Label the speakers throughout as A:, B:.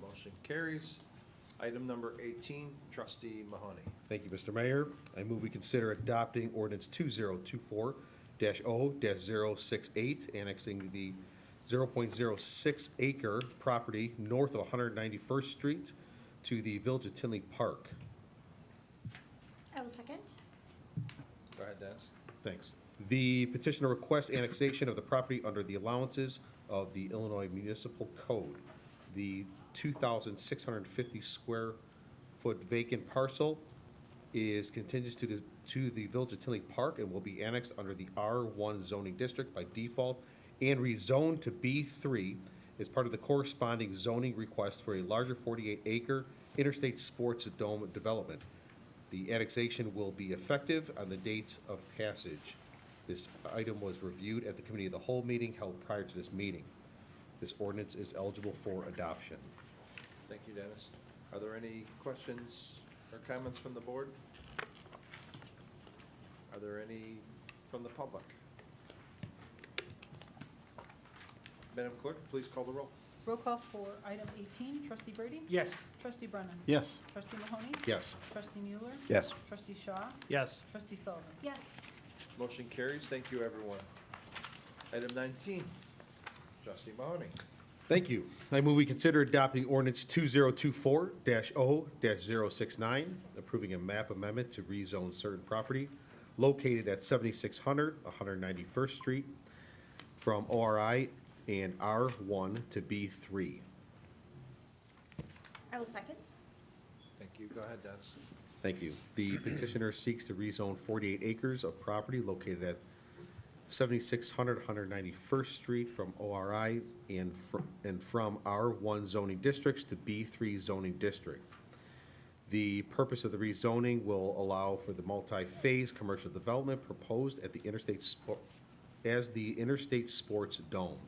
A: Motion carries. Item number 18, trustee Mahoney.
B: Thank you, Mr. Mayor. I move we consider adopting ordinance 2024-0-068, annexing the 0.06 acre property north of 191st Street to the Village of Tinley Park.
C: I will second.
A: Go ahead, Dennis.
B: Thanks. The petitioner requests annexation of the property under the allowances of the Illinois Municipal Code. The 2,650 square foot vacant parcel is contingent to the, to the Village of Tinley Park and will be annexed under the R1 zoning district by default and rezoned to B3 as part of the corresponding zoning request for a larger 48-acre interstate sports dome development. The annexation will be effective on the date of passage. This item was reviewed at the Committee of the Whole meeting held prior to this meeting. This ordinance is eligible for adoption.
A: Thank you, Dennis. Are there any questions or comments from the board? Are there any from the public? Madam Clerk, please call the roll.
D: Roll call for item 18, trustee Brady?
E: Yes.
D: Trustee Brennan?
E: Yes.
D: Trustee Mahoney?
B: Yes.
D: Trustee Mueller?
E: Yes.
D: Trustee Shaw?
E: Yes.
D: Trustee Sullivan?
C: Yes.
A: Motion carries. Thank you, everyone. Item 19, trustee Mahoney.
B: Thank you. I move we consider adopting ordinance 2024-0-069, approving a map amendment to rezone certain property located at 7600 191st Street from ORI and R1 to B3.
C: I will second.
A: Thank you. Go ahead, Dennis.
B: Thank you. The petitioner seeks to rezone 48 acres of property located at 7600 191st Street from ORI and fr- and from R1 zoning districts to B3 zoning district. The purpose of the rezoning will allow for the multi-phase commercial development proposed at the interstate, spo- as the Interstate Sports Dome.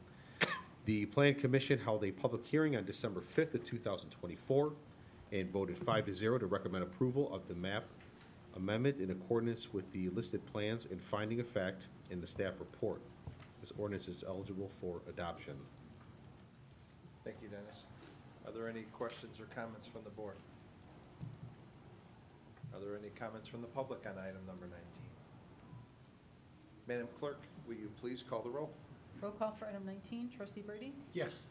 B: The Plan Commission held a public hearing on December 5th of 2024 and voted 5 to 0 to recommend approval of the map amendment in accordance with the listed plans and finding of fact in the staff report. This ordinance is eligible for adoption.
A: Thank you, Dennis. Are there any questions or comments from the board? Are there any comments from the public on item number 19? Madam Clerk, will you please call the roll?
D: Roll call for item 19, trustee Brady?
E: Yes.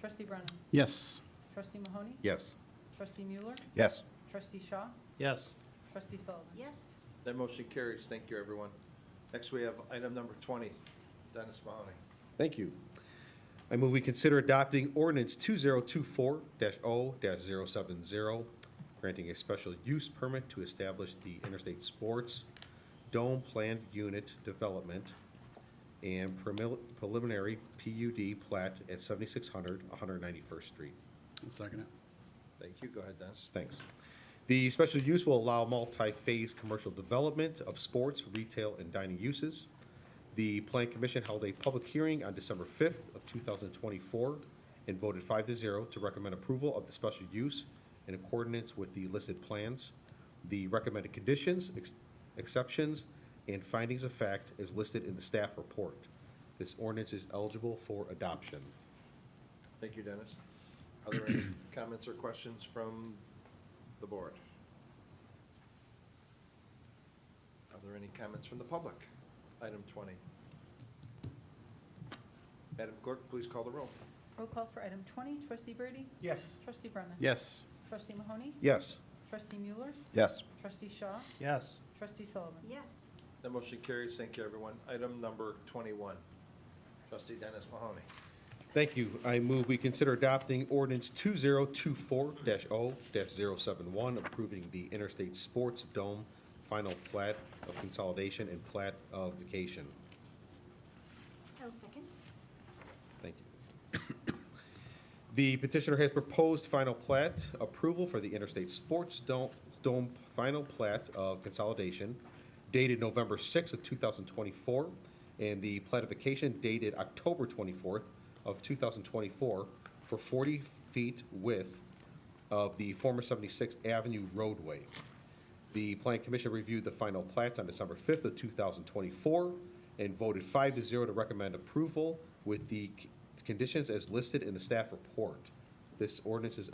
D: Trustee Brennan?
E: Yes.
D: Trustee Mahoney?
B: Yes.
D: Trustee Mueller?
E: Yes.
D: Trustee Shaw?
E: Yes.
D: Trustee Sullivan?
C: Yes.
A: That motion carries. Thank you, everyone. Next, we have item number 20. Dennis Mahoney.
B: Thank you. I move we consider adopting ordinance 2024-0-070, granting a special use permit to establish the Interstate Sports Dome Planned Unit Development and premil- preliminary PUD plat at 7600 191st Street.
E: Second it.
A: Thank you. Go ahead, Dennis.
B: Thanks. The special use will allow multi-phase commercial development of sports, retail, and dining uses. The Plan Commission held a public hearing on December 5th of 2024 and voted 5 to 0 to recommend approval of the special use in accordance with the listed plans, the recommended conditions, ex- exceptions, and findings of fact is listed in the staff report. This ordinance is eligible for adoption.
A: Thank you, Dennis. Are there any comments or questions from the board? Are there any comments from the public? Item 20. Madam Clerk, please call the roll.
D: Roll call for item 20, trustee Brady?
E: Yes.
D: Trustee Brennan?
E: Yes.
D: Trustee Mahoney?
B: Yes.
D: Trustee Mueller?
E: Yes.
D: Trustee Shaw?
E: Yes.
D: Trustee Sullivan?
C: Yes.
A: That motion carries. Thank you, everyone. Item number 21. Trustee Dennis Mahoney.
B: Thank you. I move we consider adopting ordinance 2024-0-071, approving the Interstate Sports Dome final plat of consolidation and plat of vacation.
C: I will second.
B: Thank you. The petitioner has proposed final plat approval for the Interstate Sports Dome, Dome final plat of consolidation dated November 6th of 2024, and the platification dated October 24th of 2024 for 40 feet width of the former 76th Avenue roadway. The Plan Commission reviewed the final plats on December 5th of 2024 and voted 5 to 0 to recommend approval with the c- conditions as listed in the staff report. This ordinance is